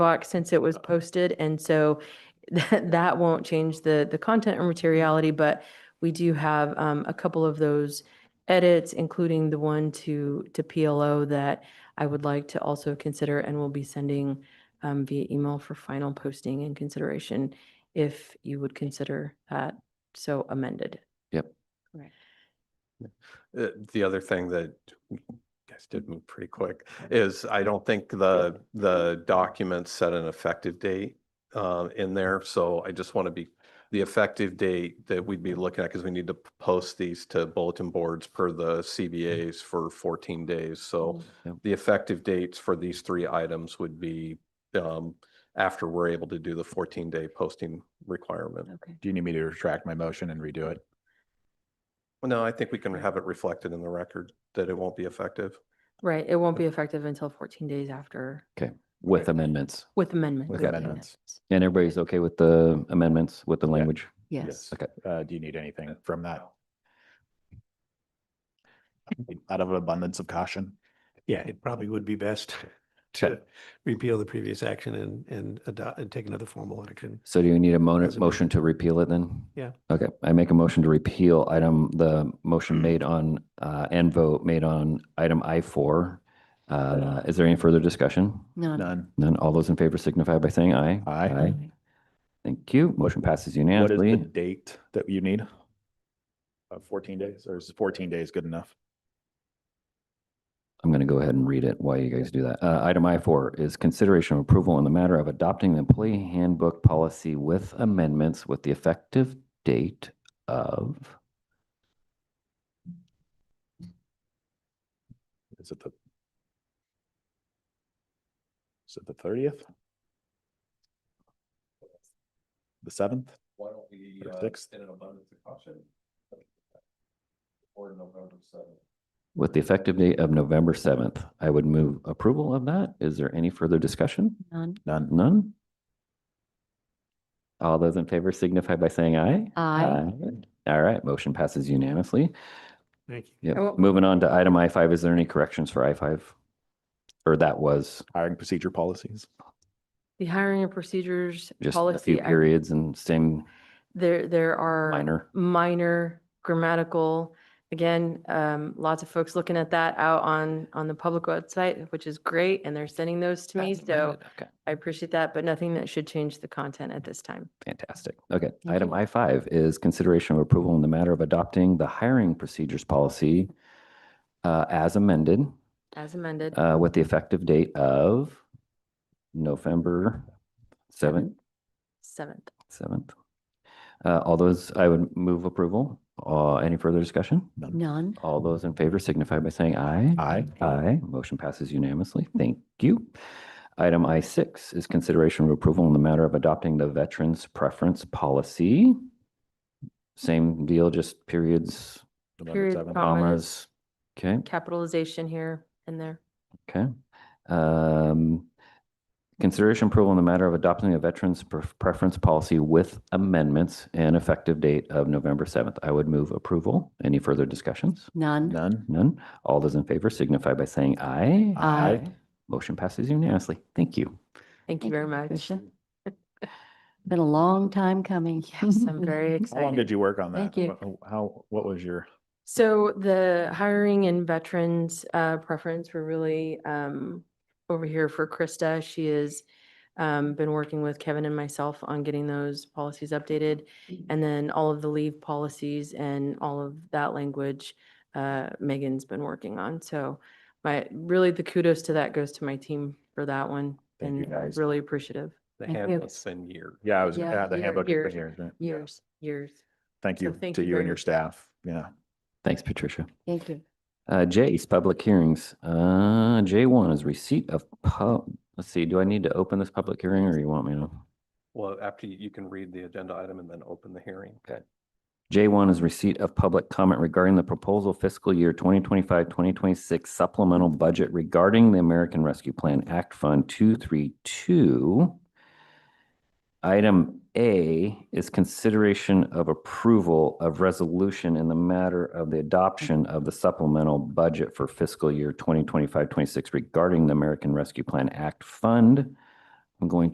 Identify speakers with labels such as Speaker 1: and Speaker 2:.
Speaker 1: box since it was posted. And so that, that won't change the, the content or materiality, but we do have um, a couple of those edits, including the one to, to PLO that I would like to also consider and will be sending um, via email for final posting and consideration if you would consider that so amended.
Speaker 2: Uh, The other thing that you guys did move pretty quick is I don't think the, the document set an effective date uh, in there. So I just want to be, the effective date that we'd be looking at, because we need to p- post these to bulletin boards per the CBAs for 14 days. So
Speaker 3: Yep.
Speaker 2: the effective dates for these three items would be um, after we're able to do the 14-day posting requirement.
Speaker 1: Okay.
Speaker 3: Do you need me to retract my motion and redo it?
Speaker 2: No, I think we can have it reflected in the record that it won't be effective.
Speaker 1: Right, it won't be effective until 14 days after,
Speaker 4: with amendments.
Speaker 1: with amendment.
Speaker 3: With
Speaker 1: yeah,
Speaker 3: amendments.
Speaker 4: And everybody's okay with the amendments, with the language?
Speaker 1: Yes.
Speaker 4: Okay.
Speaker 3: Uh, do you need anything from that? Out of an abundance of caution?
Speaker 5: Yeah, it probably would be best to repeal the previous action and, and adopt, and take another formal action.
Speaker 4: So do you need a mo-
Speaker 5: As amended.
Speaker 4: motion to repeal it then?
Speaker 5: Yeah.
Speaker 4: Okay, I make a motion to repeal item, the
Speaker 3: Hmm.
Speaker 4: motion made on, uh, and vote made on item I four. Uh, is there any further discussion?
Speaker 3: None.
Speaker 4: None. All those in favor signify by saying aye.
Speaker 3: Aye.
Speaker 4: Thank you. Motion passes
Speaker 3: What is the
Speaker 4: unanimously.
Speaker 3: date that you need? Uh, fourteen days, or is fourteen days good enough?
Speaker 4: I'm going to go ahead and read it while you guys do that. Uh, item I four is consideration of approval on the matter of adopting the employee handbook policy with amendments with the effective date of
Speaker 3: Is it the? Is it the thirtieth? The seventh?
Speaker 2: Why don't we,
Speaker 3: Or
Speaker 2: uh,
Speaker 3: sixth.
Speaker 2: in an abundance of caution? Or November seventh.
Speaker 4: With the effective date of November seventh, I would move approval of that. Is there any further discussion?
Speaker 6: None.
Speaker 3: None.
Speaker 4: None? All those in favor signify by saying aye.
Speaker 6: Aye.
Speaker 4: All right, motion passes unanimously.
Speaker 5: Thank you.
Speaker 1: I
Speaker 4: Yep.
Speaker 1: will-
Speaker 4: Moving on to item I five, is there any corrections for I five? Or that was
Speaker 3: Hiring procedure policies.
Speaker 1: The hiring and procedures
Speaker 4: just a few
Speaker 1: policy, I-
Speaker 4: periods and same
Speaker 1: there, there are.
Speaker 4: minor?
Speaker 1: minor grammatical. Again, um, lots of folks looking at that out on, on the public website, which is great, and they're sending those to me, so
Speaker 4: Okay.
Speaker 1: I appreciate that, but nothing that should change the content at this time.
Speaker 4: Fantastic. Okay. Item I five is consideration of approval in the matter of adopting the hiring procedures policy uh, as amended.
Speaker 1: As amended,
Speaker 4: uh, with the effective date of November seventh,
Speaker 1: seventh.
Speaker 4: seventh. Uh, all those, I would move approval. Uh, any further discussion?
Speaker 6: None.
Speaker 4: All those in favor signify by saying aye.
Speaker 3: Aye.
Speaker 4: Aye. Motion passes unanimously. Thank you. Item I six is consideration of approval in the matter of adopting the Veterans Preference Policy. Same deal, just periods,
Speaker 3: November
Speaker 1: Period,
Speaker 3: seventh.
Speaker 1: comma.
Speaker 4: commas. Okay.
Speaker 1: Capitalization here and there.
Speaker 4: Okay. Um, Consideration approval in the matter of adopting a veterans pref- preference policy with amendments and effective date of November 7th. I would move approval. Any further discussions?
Speaker 6: None.
Speaker 3: None.
Speaker 4: None. All those in favor signify by saying aye.
Speaker 6: Aye.
Speaker 4: Motion passes unanimously. Thank you.
Speaker 1: Thank you
Speaker 6: Thank
Speaker 1: very
Speaker 6: you,
Speaker 1: much.
Speaker 6: Tricia. Been a long time coming.
Speaker 1: Yes, I'm very
Speaker 3: How long
Speaker 1: excited.
Speaker 3: did you work on that?
Speaker 6: Thank you.
Speaker 3: Wh- How, what was your?
Speaker 1: So the hiring and veterans uh, preference, we're really um, over here for Krista. She has um, been working with Kevin and myself on getting those policies updated.
Speaker 3: Mm-hmm.
Speaker 1: And then all of the leave policies and all of that language, uh, Megan's been working on. So my, really the kudos to that goes to my team for that one.
Speaker 3: Thank you,
Speaker 1: And I'm
Speaker 3: guys.
Speaker 1: really appreciative.
Speaker 2: The
Speaker 6: Thank you.
Speaker 2: handbook's in year.
Speaker 3: Yeah, I was,
Speaker 6: Yeah,
Speaker 3: yeah, the
Speaker 6: year-
Speaker 3: handbook.
Speaker 1: years.
Speaker 3: has been years, right?
Speaker 1: Years. Years.
Speaker 3: Thank
Speaker 1: So
Speaker 3: you
Speaker 1: thank
Speaker 3: to
Speaker 1: you
Speaker 3: you
Speaker 1: very
Speaker 3: and your
Speaker 1: much.
Speaker 3: staff. Yeah.
Speaker 4: Thanks, Patricia.
Speaker 6: Thank you.
Speaker 4: Uh, J's public hearings. Uh, J one is receipt of pub, let's see, do I need to open this public hearing or you want me to?
Speaker 2: Well, after you you can read the agenda item and then open the hearing.
Speaker 4: Okay. J1 is receipt of public comment regarding the proposal fiscal year 2025, 2026 supplemental budget regarding the American Rescue Plan Act Fund 232. Item A is consideration of approval of resolution in the matter of the adoption of the supplemental budget for fiscal year 2025, 26 regarding the American Rescue Plan Act Fund. I'm going